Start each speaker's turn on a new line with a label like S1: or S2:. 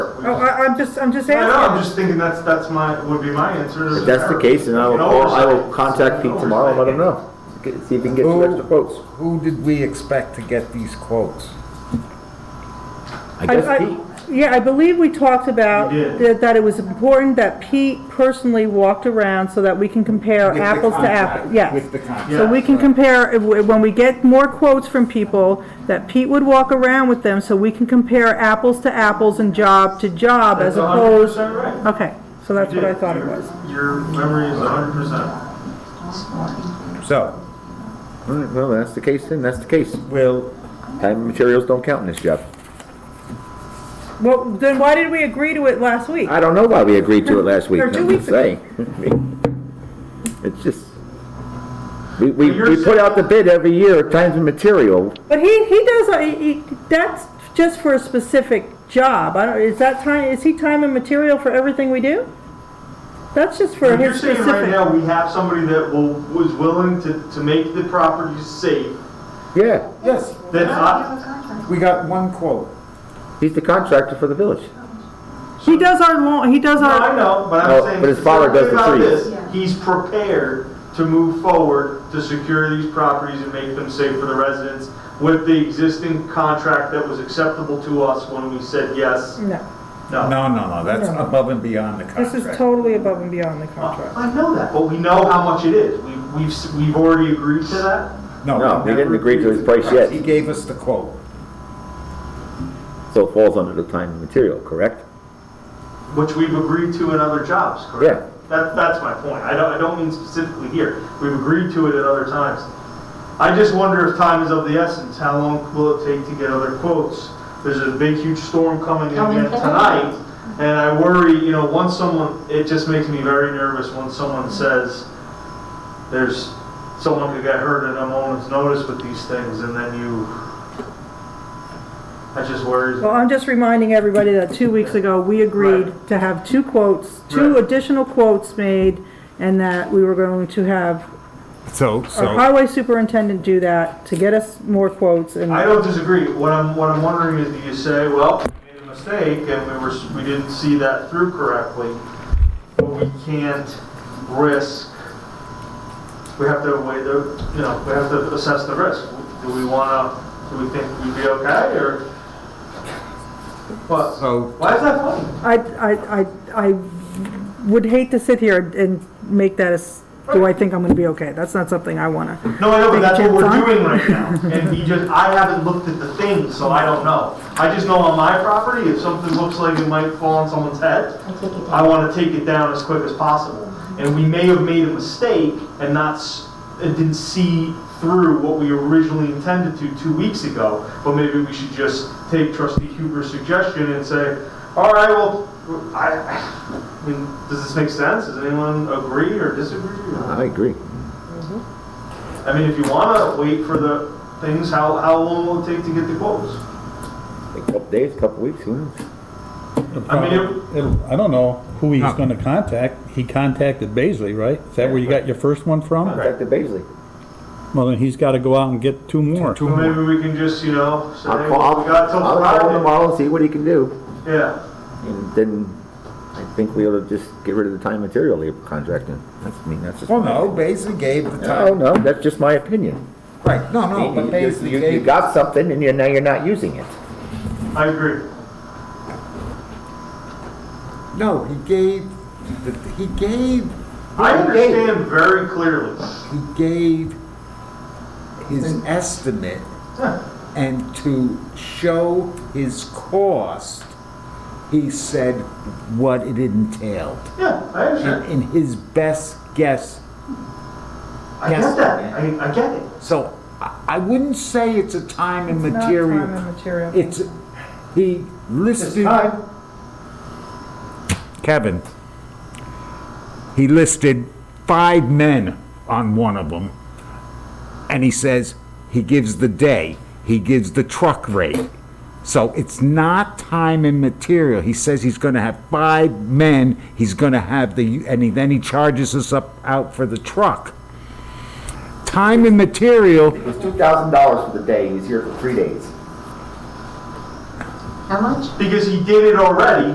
S1: Oh, I'm just, I'm just
S2: I know, I'm
S1: asking.
S2: just thinking that's, that's my, would be my answer.
S3: If that's the case, then I will, call- I will contact Pete tomorrow and let him know. Get- See if he can get two extra quotes.
S4: Who did we expect to get these quotes?
S3: I
S1: I-
S3: guess
S1: I-
S3: Pete.
S1: Yeah, I believe we talked about
S2: You did.
S1: that, that it was important that Pete personally walked around so that we can compare
S4: With the
S1: apples to
S4: contract,
S1: apples, yes.
S4: With the contract.
S1: So we can
S2: Yeah, right.
S1: compare, if we- when we get more quotes from people, that Pete would walk around with them so we can compare apples to apples and job to job as
S2: That's a hundred
S1: opposed.
S2: percent right.
S1: Okay, so that's what I thought it
S2: Your-
S1: was.
S2: Your memory is a hundred percent.
S4: So,
S3: All right, well, that's the case then, that's the case.
S4: we'll,
S3: Time and materials don't count in this job.
S1: Well, then why did we agree to it last week?
S3: I don't know why we agreed to it last week.
S1: Or two
S3: I'm
S1: weeks
S3: just
S1: ago.
S3: saying. It's just, we, we,
S2: But you're
S3: we put out the bid every year, times and material.
S1: But he, he does, a- he- he- that's just for a specific job. I don't, is that time, is he time and material for everything we do? That's just for
S2: But you're
S1: his
S2: saying right
S1: specific.
S2: now, we have somebody that will, was willing to, to make the property safe,
S3: Yeah,
S4: yes,
S2: that's not,
S4: we got one quote.
S3: he's the contractor for the village.
S1: He does our lawn, he does
S2: No, I
S1: our,
S2: know, but I'm
S3: No,
S2: saying.
S3: but his father does the
S2: about
S3: trees.
S2: this, He's prepared to move forward to secure these properties and make them safe for the residents with the existing contract that was acceptable to us when we said yes,
S1: no,
S2: no.
S4: No, no, no, that's
S1: No.
S4: above and beyond the
S1: this is
S4: contract.
S1: totally above and beyond the contract.
S2: I know that, but we know how much it is. We, we've, s- we've already agreed to that.
S3: No,
S4: we
S3: he didn't
S4: never
S3: agree to
S4: agreed
S3: his price yet.
S4: He gave us the quote.
S3: So it falls under the time and material, correct?
S2: Which we've agreed to in other jobs, correct?
S3: Yeah.
S2: That, that's my point. I don't, I don't mean specifically here. We've agreed to it at other times. I just wonder if time is of the essence. How long will it take to get other quotes? There's a big, huge storm coming in
S5: Coming
S2: again
S5: in.
S2: tonight, and I worry, you know, once someone, it just makes me very nervous when someone says, there's, someone could get hurt at a moment's notice with these things, and then you, that just worries me.
S1: Well, I'm just reminding everybody that two weeks ago, we agreed to have two quotes, two
S2: Right.
S1: additional quotes made, and that we were going to have
S4: So,
S1: our
S4: so,
S1: highway superintendent do that to get us more quotes and.
S2: I don't disagree. What I'm, what I'm wondering is, do you say, well, we made a mistake and we were, we didn't see that through correctly, but we can't risk, we have to weigh the, you know, we have to assess the risk. Do we wanna, do we think we'd be okay or? What?
S4: so,
S2: Why is that funny?
S1: I, I, I, I would hate to sit here and make that as, do I think I'm gonna be okay? That's not something I wanna.
S2: No, I know, but that's what
S1: Take a
S2: we're
S1: chance on?
S2: doing right now. And you just, I haven't looked at the thing, so I don't know. I just know on my property, if something looks like it might fall on someone's head,
S5: I take it
S2: I
S5: down.
S2: want to take it down as quick as possible. And we may have made a mistake and not, s- and didn't see through what we originally intended to two weeks ago, but maybe we should just take trustee Huber's suggestion and say, all right, well, I, I mean, does this make sense? Does anyone agree or disagree?
S3: I agree.
S2: I mean, if you want to wait for the things, how, how long will it take to get the quotes?
S3: A couple days, couple weeks, who knows?
S2: I mean, it-
S6: It'll- I don't know who he's
S4: No.
S6: gonna contact. He contacted Baisley, right? Is that where you got your first one from?
S3: Back to Basley.
S6: Well, then he's gotta go out and get two more.
S4: two
S2: Well,
S4: more.
S2: maybe we can just, you know,
S3: Mm-hmm.
S2: say,
S3: I'll
S2: well,
S3: call,
S2: we got till
S3: I'll call him
S2: Friday.
S3: tomorrow and see what he can do.
S2: Yeah.
S3: And then I think we ought to just get rid of the time and material labor contract then. That's, I mean, that's just.
S4: well, no, Basley gave the
S3: No,
S4: time.
S3: no, that's just my opinion.
S1: Oh.
S4: Right, no, no, but
S3: You- you-
S4: Basley
S3: You, you
S4: gave,
S3: got something and you're, now you're not using it.
S2: I agree.
S4: no, he gave, the- he gave,
S2: I
S4: Okay.
S2: understand very clearly.
S4: he gave his estimate and to show his cost, he said what it entailed.
S2: Yeah, I
S4: in,
S2: understand.
S4: in his best guess.
S2: I get that. I, I get it.
S4: So I, I wouldn't say it's a time and
S1: It's not
S4: material.
S1: time and material.
S4: It's he listed
S2: time.
S4: Kevin. He listed five men on one of them, and he says he gives the day, he gives the truck rate. So it's not time and material. He says he's going to have five men. He's going to have the and he, then he charges us up out for the truck. Time and material
S3: It was two thousand dollars for the day, he's here for three days.
S5: How much?
S2: Because he did it already.